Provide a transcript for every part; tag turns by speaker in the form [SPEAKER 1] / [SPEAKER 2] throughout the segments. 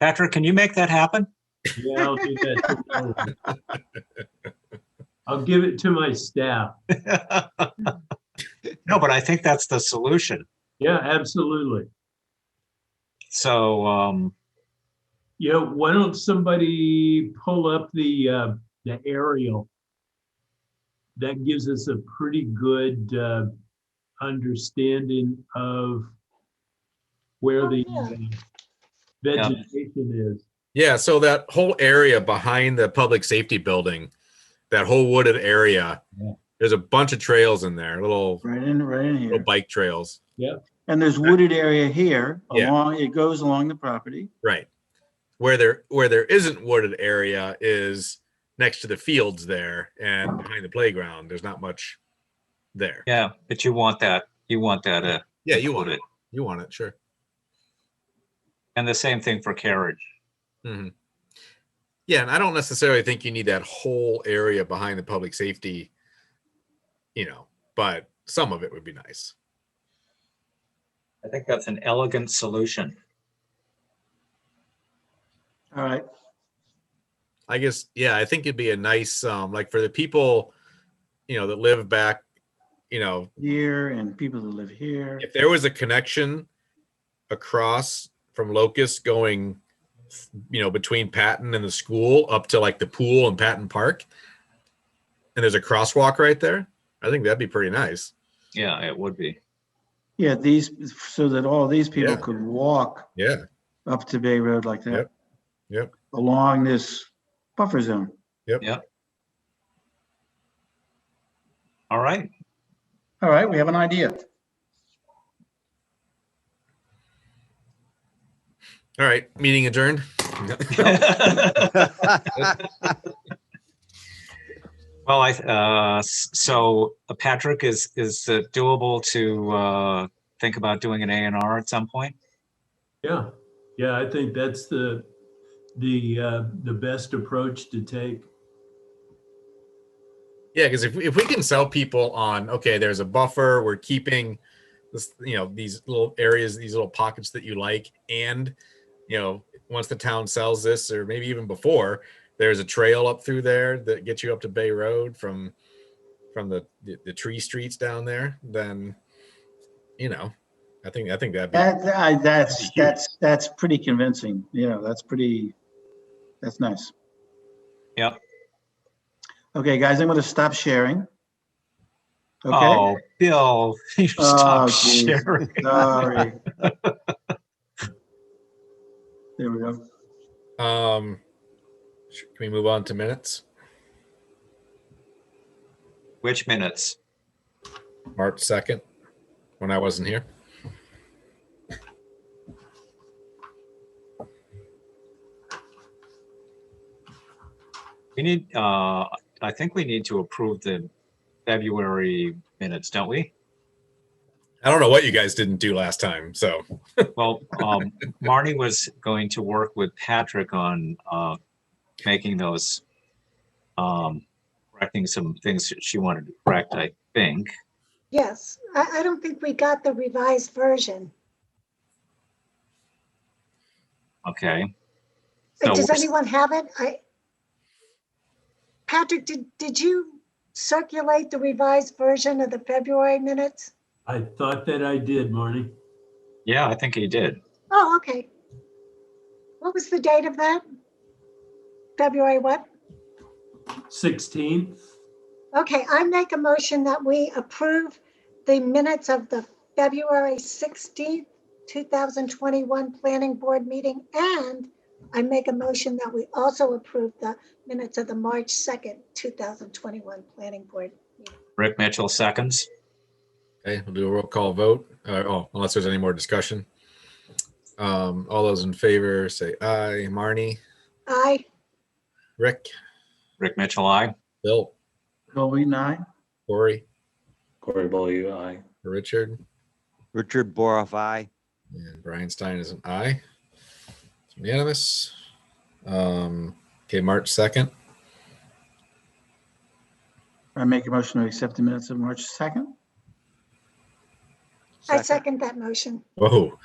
[SPEAKER 1] Patrick, can you make that happen?
[SPEAKER 2] Yeah, I'll do that. I'll give it to my staff.
[SPEAKER 1] No, but I think that's the solution.
[SPEAKER 2] Yeah, absolutely.
[SPEAKER 1] So, um,
[SPEAKER 2] Yeah, why don't somebody pull up the, uh, the aerial? That gives us a pretty good, uh, understanding of where
[SPEAKER 3] Oh,
[SPEAKER 2] the
[SPEAKER 3] yeah.
[SPEAKER 2] uh, vegetation is.
[SPEAKER 4] Yeah, so that whole area behind the public safety building, that whole wooded area,
[SPEAKER 2] Yeah.
[SPEAKER 4] there's a bunch of trails in there, little
[SPEAKER 5] Right in, right in
[SPEAKER 4] little
[SPEAKER 5] here.
[SPEAKER 4] bike trails.
[SPEAKER 5] And there's wooded area here
[SPEAKER 4] Yeah.
[SPEAKER 5] along, it goes along the property.
[SPEAKER 4] Right. Where there where there isn't wooded area is next to the fields there and behind the playground. There's not much there.
[SPEAKER 1] yeah, but you want that, you want that, uh,
[SPEAKER 4] Yeah, you want
[SPEAKER 1] included.
[SPEAKER 4] it. You want it, sure.
[SPEAKER 1] And the same thing for carriage.
[SPEAKER 4] hmm Yeah, and I don't necessarily think you need that whole area behind the public safety, you know, but some of it would be nice.
[SPEAKER 1] I think that's an elegant solution.
[SPEAKER 5] All right,
[SPEAKER 4] I guess yeah, I think it'd be a nice um like for the people, you know, that live back, you know,
[SPEAKER 5] here and people that live here.
[SPEAKER 4] if there was a connection across from Locust going you know, between Patton and the school up to like the pool and Patton Park, and there's a crosswalk right there, I think that'd be pretty nice.
[SPEAKER 1] Yeah, it would be.
[SPEAKER 5] Yeah, these, so that all these people
[SPEAKER 4] Yeah.
[SPEAKER 5] could walk
[SPEAKER 4] Yeah.
[SPEAKER 5] up to Bay Road like that.
[SPEAKER 4] Yep. Yep.
[SPEAKER 5] Along this buffer zone.
[SPEAKER 1] All right.
[SPEAKER 5] All right, we have an idea.
[SPEAKER 4] All right, meeting adjourned.
[SPEAKER 1] Well, I, uh, s- so uh, Patrick, is, is it doable to, uh, think about doing an A and R at some point?
[SPEAKER 2] Yeah, yeah, I think that's the, the, uh, the best approach to take.
[SPEAKER 4] Yeah, because if, we- if we can sell people on, okay, there's a buffer, we're keeping this, you know, these little areas, these little pockets that you like, and you know, once the town sells this, or maybe even before, there's a trail up through there that gets you up to Bay Road from from the the, the tree streets down there, then you know, I think I think that'd be
[SPEAKER 5] That, I, that's,
[SPEAKER 4] That'd be huge.
[SPEAKER 5] that's, that's pretty convincing, you know, that's pretty, that's nice.
[SPEAKER 1] Yep.
[SPEAKER 5] Okay, guys, I'm gonna stop sharing. Okay,
[SPEAKER 1] Oh, Bill, you
[SPEAKER 5] Oh,
[SPEAKER 1] stop
[SPEAKER 5] geez. Uh,
[SPEAKER 1] sharing.
[SPEAKER 5] sorry. There we go.
[SPEAKER 4] um sh- can we move on to minutes?
[SPEAKER 1] Which minutes?
[SPEAKER 4] March second, when I wasn't here.
[SPEAKER 1] We need, uh, I think we need to approve the February minutes, don't we?
[SPEAKER 4] I don't know what you guys didn't do last time, so
[SPEAKER 1] Well, um, Marty was going to work with Patrick on, uh, making those, um, correcting some things that she wanted to correct, I think.
[SPEAKER 3] Yes, I, I don't think we got the revised version.
[SPEAKER 1] Okay.
[SPEAKER 3] Uh,
[SPEAKER 1] No,
[SPEAKER 3] Does
[SPEAKER 1] we're-
[SPEAKER 3] anyone have it? I. Patrick, did, did you circulate the revised version of the February minutes?
[SPEAKER 2] I thought that I did, Marnie.
[SPEAKER 1] Yeah, I think he did.
[SPEAKER 3] Oh, okay. What was the date of that? February what?
[SPEAKER 2] 16th?
[SPEAKER 3] Okay, I make a motion that we approve the minutes of the February 16th, 2021 Planning Board meeting. And I make a motion that we also approve the minutes of the March 2nd, 2021 Planning Board.
[SPEAKER 1] Rick Mitchell seconds.
[SPEAKER 4] Okay, we'll do a roll call vote. Uh, oh, unless there's any more discussion. Um, all those in favor say aye. Marnie,
[SPEAKER 3] Aye,
[SPEAKER 4] Rick,
[SPEAKER 1] Rick Mitchell, I.
[SPEAKER 4] Bill,
[SPEAKER 5] Colby, nine?
[SPEAKER 4] Corey,
[SPEAKER 6] Corey Bowley, aye.
[SPEAKER 4] Richard,
[SPEAKER 7] Richard Boroff, aye.
[SPEAKER 4] and Brian Stein is an aye. It's unanimous. Um, okay, March 2nd.
[SPEAKER 5] I make a motion to accept the minutes of March 2nd.
[SPEAKER 3] I second that motion.
[SPEAKER 4] Whoa.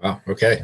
[SPEAKER 4] Wow, okay.